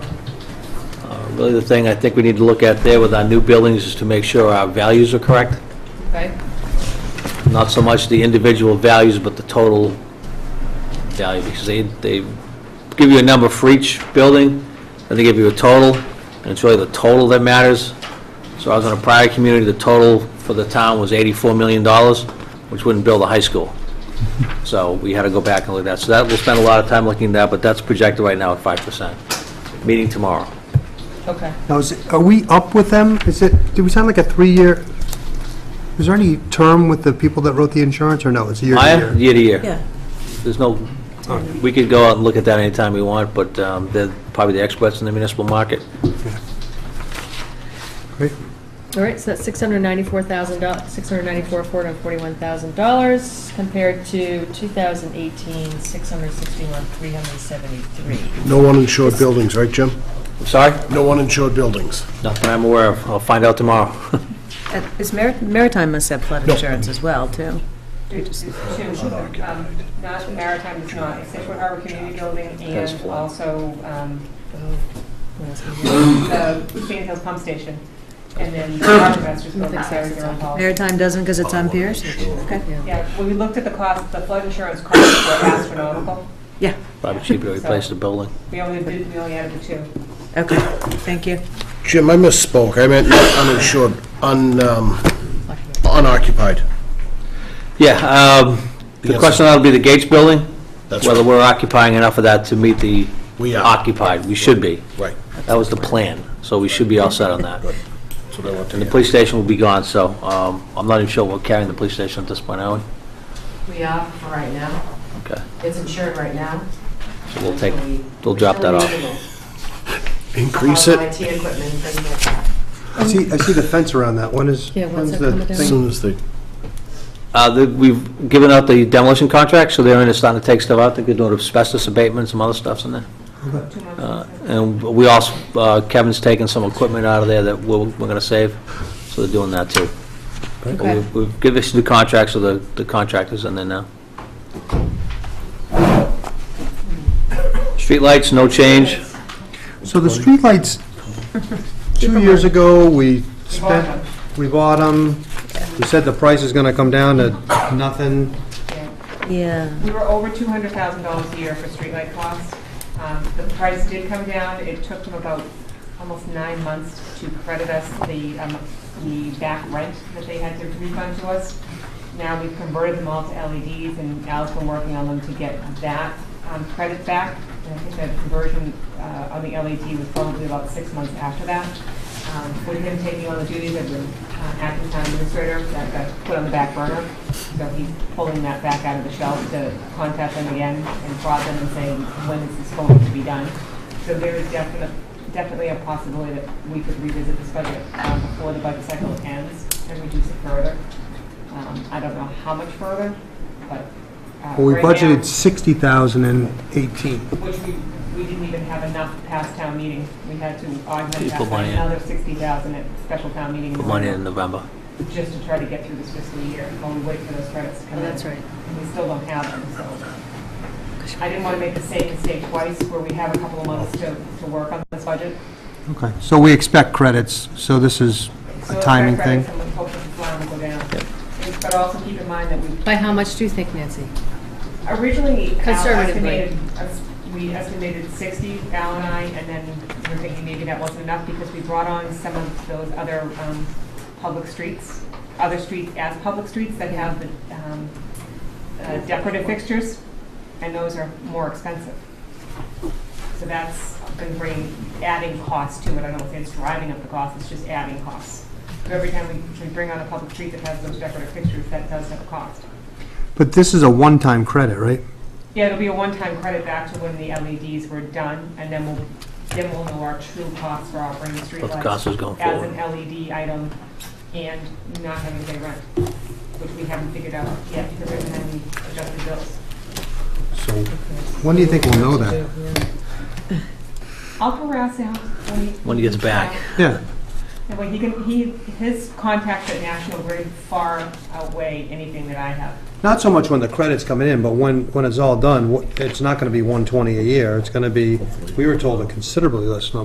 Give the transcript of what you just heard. Really, the thing I think we need to look at there with our new buildings is to make sure our values are correct, Okay, not so much the individual values, but the total value, because they, they give you a number for each building, and they give you a total, and it's really the total that matters. So I was in a prior community, the total for the town was $84 million, which wouldn't build a high school. So we had to go back and look at that. So that, we'll spend a lot of time looking at that, but that's projected right now at 5%. Meeting tomorrow. okay. Now, is it- are we up with them? Is it, do we sign like a three-year, is there any term with the people that wrote the insurance, or no, it's a year to Maya, year? year to year. Yeah, There's no, we could go out and look at that anytime we want, but um, they're probably the experts in the municipal market. Great. All right, so that's six hundred ninety-four thousand dollars, six hundred ninety-four, four hundred forty-one thousand dollars compared to two thousand eighteen, six hundred sixty-one, three hundred seventy-three. No uninsured buildings, right, Jim? I'm sorry? No uninsured buildings. Nothing I'm aware of. I'll find out tomorrow. And is Mar- Maritime must have flood insurance as well, too. It's two, um, not maritime, it's not, it's Situate Harbor Community Building That's and flood. also um, the Sand Hills Pump Station. And then the Harbor Masters Building, Sarah Durham Hall. Maritime doesn't because it's on piers? Okay. Yeah, when we looked at the cost, the flood insurance costs were astronomical. Yeah, Probably cheaper to replace the building. We only did, we only added the two. okay, thank you. Jim, I misspoke. I meant not uninsured, un, um, unoccupied. Yeah, um, the Yes. question that'll be the Gates Building, That's whether we're occupying enough of that to meet the We are. occupied. We should be. Right. That was the plan, so we should be all set on that. That's what I want to And the hear. police station will be gone, so um, I'm not even sure we're carrying the police station at this point, are we? We are for right now. Okay, It's insured right now. so we'll take, Until we- we'll drop that until off. we need Increase All the it IT equipment, and things like that. I see, I see the fence around that. When is, Yeah, when's when's that the coming down? as thing? soon as they, Uh, the- We've given out the demolition contract, so they're in, starting to take stuff out, they're doing asbestos abatement, some other stuff's in there. Uh, And we also, uh, Kevin's taking some equipment out of there that we're, we're gonna save, so they're doing that too. But Okay. we've- We've given us the contracts, so the the contractor's in there now. Streetlights, no change. So the streetlights, two years ago, we spent, we bought them, we said the price is gonna come down to nothing. Yeah. We were over two hundred thousand dollars a year for streetlight costs. Um, The price did come down. It took them about almost nine months to credit us the, um, the back rent that they had to refund to us. Now we've converted them all to LEDs and Al's been working on them to get that um, credit back. And I think that conversion uh, on the LED was probably about six months after that. Um, With him taking on the duties of the uh, acting town administrator, that got put on the back burner. So he's pulling that back out of the shelf to contact them again and prod them and say, when is this going to be done? So there is definite, definitely a possibility that we could revisit this budget um, before the budget cycle ends and reduce it further. Um, I don't know how much further, but. uh, Well, we right now- budgeted 60,000 in 18. Which we, we didn't even have enough past town meeting. We had to You augment that put by money in. another sixty thousand at special town meeting. Put money in November. Just to try to get through this fiscal year while we wait for those credits to come Oh, in. that's right. And we still don't have them, so. I didn't want to make the same mistake twice where we have a couple of months to, to work on this budget. Okay, so we expect credits, so this is So a if timing our credits, thing. I'm hoping the line will go down. But also keep in mind that we By how much do you think, Nancy? Originally, Al Conservatively. estimated, es- we estimated 60, Al and I, and then we're thinking maybe that wasn't enough because we brought on some of those other um, public streets, other streets as public streets that have the um, uh, decorative fixtures, and those are more expensive. So that's been bringing, adding costs to it. I don't know if it's driving up the cost, it's just adding costs. So Every time we we bring on a public street that has those decorative fixtures, that does have a cost. But this is a one-time credit, right? Yeah, it'll be a one-time credit back to when the LEDs were done, and then we'll, then we'll know our true costs for operating streetlights. What the cost is going As forward. an LED item and not having to pay rent, which we haven't figured out yet because every time we adjust the bills. So when do you think we'll know that? I'll harass him when he. When he gets back. Yeah, That way he can, he, his contacts at National Grid far outweigh anything that I have. not so much when the credit's coming in, but when, when it's all done, wh- it's not going to be 120 a year. It's going to be, we were told a considerably less number.